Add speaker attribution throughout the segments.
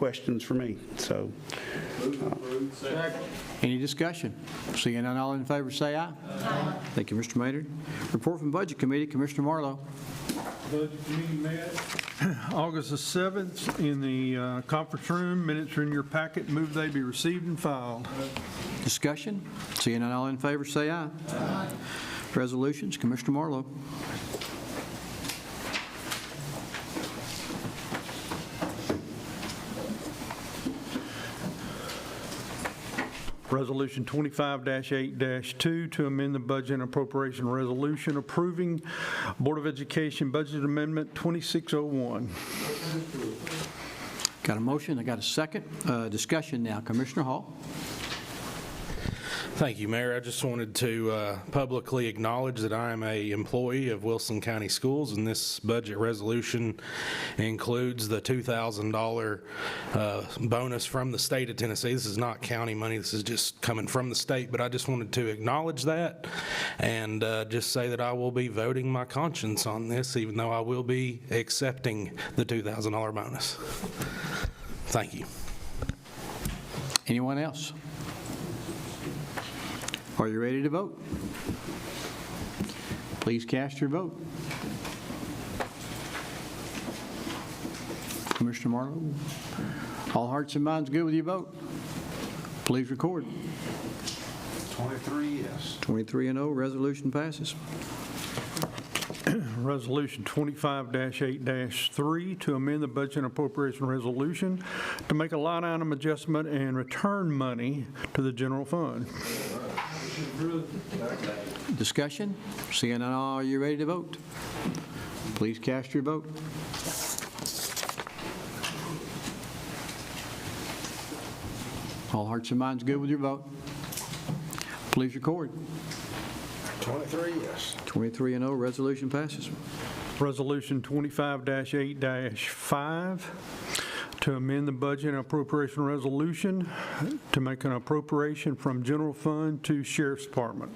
Speaker 1: questions for me, so.
Speaker 2: Any discussion? Seeing none, all in favor, say aye. Aye. Thank you, Mr. Maynard. Report from Budget Committee, Commissioner Marlowe.
Speaker 3: Budget meeting met August the 7th in the uh, conference room. Minutes are in your packet. Move they be received and filed.
Speaker 2: Discussion? Seeing none, all in favor, say aye. Aye. Resolutions, Commissioner Marlowe.
Speaker 3: Resolution 25-8-2 to amend the budget and appropriation resolution approving Board of Education Budget Amendment 2601.
Speaker 2: Got a motion, I got a second. Uh, Discussion now, Commissioner Hall.
Speaker 4: Thank you, Mayor. I just wanted to uh, publicly acknowledge that I am a employee of Wilson County Schools, and this budget resolution includes the $2,000 uh, bonus from the state of Tennessee. This is not county money, this is just coming from the state, but I just wanted to acknowledge that and uh, just say that I will be voting my conscience on this, even though I will be accepting the $2,000 bonus. Thank you.
Speaker 2: Anyone else? Are you ready to vote? Please cast your vote. Commissioner Marlowe, all hearts and minds good with your vote? Please record.
Speaker 5: 23 yes.
Speaker 2: 23 and 0, resolution passes.
Speaker 3: Resolution 25-8-3 to amend the budget and appropriation resolution to make a line item adjustment and return money to the general fund.
Speaker 2: Discussion? Seeing none, are you ready to vote? Please cast your vote. All hearts and minds good with your vote? Please record.
Speaker 5: 23 yes.
Speaker 2: 23 and 0, resolution passes.
Speaker 3: Resolution 25-8-5, to amend the budget and appropriation resolution to make an appropriation from general fund to sheriff's department.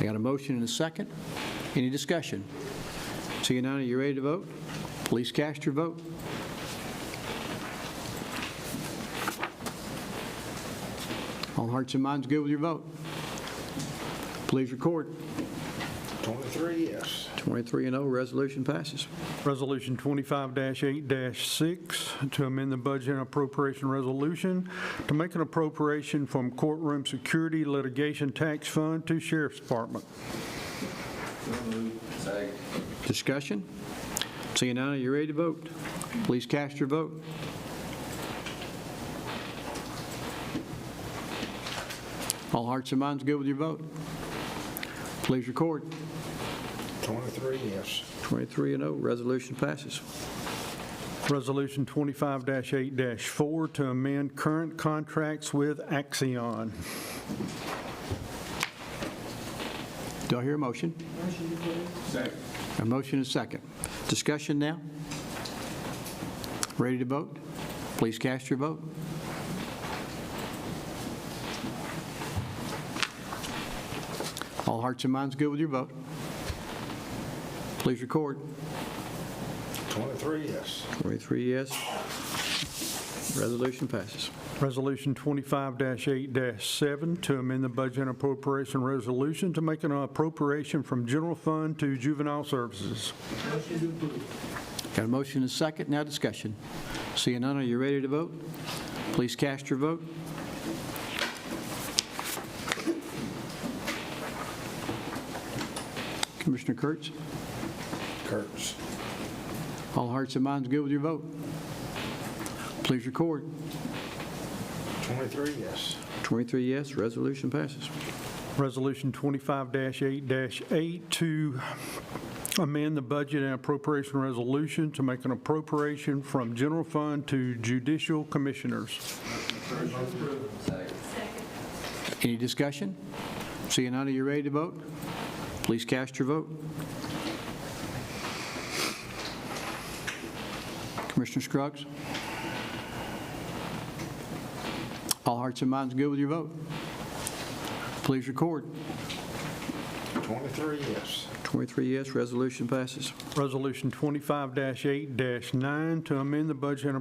Speaker 2: I got a motion and a second. Any discussion? Seeing none, are you ready to vote? Please cast your vote. All hearts and minds good with your vote? Please record.
Speaker 5: 23 yes.
Speaker 2: 23 and 0, resolution passes.
Speaker 3: Resolution 25-8-6, to amend the budget and appropriation resolution to make an appropriation from courtroom security litigation tax fund to sheriff's department.
Speaker 2: Discussion? Seeing none, are you ready to vote? Please cast your vote. All hearts and minds good with your vote? Please record.
Speaker 5: 23 yes.
Speaker 2: 23 and 0, resolution passes.
Speaker 3: Resolution 25-8-4, to amend current contracts with Axion.
Speaker 2: Do I hear a motion? Second. A motion and a second. Discussion now? Ready to vote? Please cast your vote. All hearts and minds good with your vote? Please record.
Speaker 5: 23 yes.
Speaker 2: 23 yes. Resolution passes.
Speaker 3: Resolution 25-8-7 to amend the budget and appropriation resolution to make an appropriation from general fund to juvenile services.
Speaker 2: Got a motion and a second, now discussion. Seeing none, are you ready to vote? Please cast your vote. Commissioner Kurtz,
Speaker 5: Kurtz.
Speaker 2: all hearts and minds good with your vote? Please record.
Speaker 5: 23 yes.
Speaker 2: 23 yes, resolution passes.
Speaker 3: Resolution 25-8-8 to amend the budget and appropriation resolution to make an appropriation from general fund to judicial commissioners.
Speaker 2: Any discussion? Seeing none, are you ready to vote? Please cast your vote. Commissioner Scruggs? All hearts and minds good with your vote? Please record.
Speaker 5: 23 yes.
Speaker 2: 23 yes, resolution passes.
Speaker 3: Resolution 25-8-9 to amend the budget and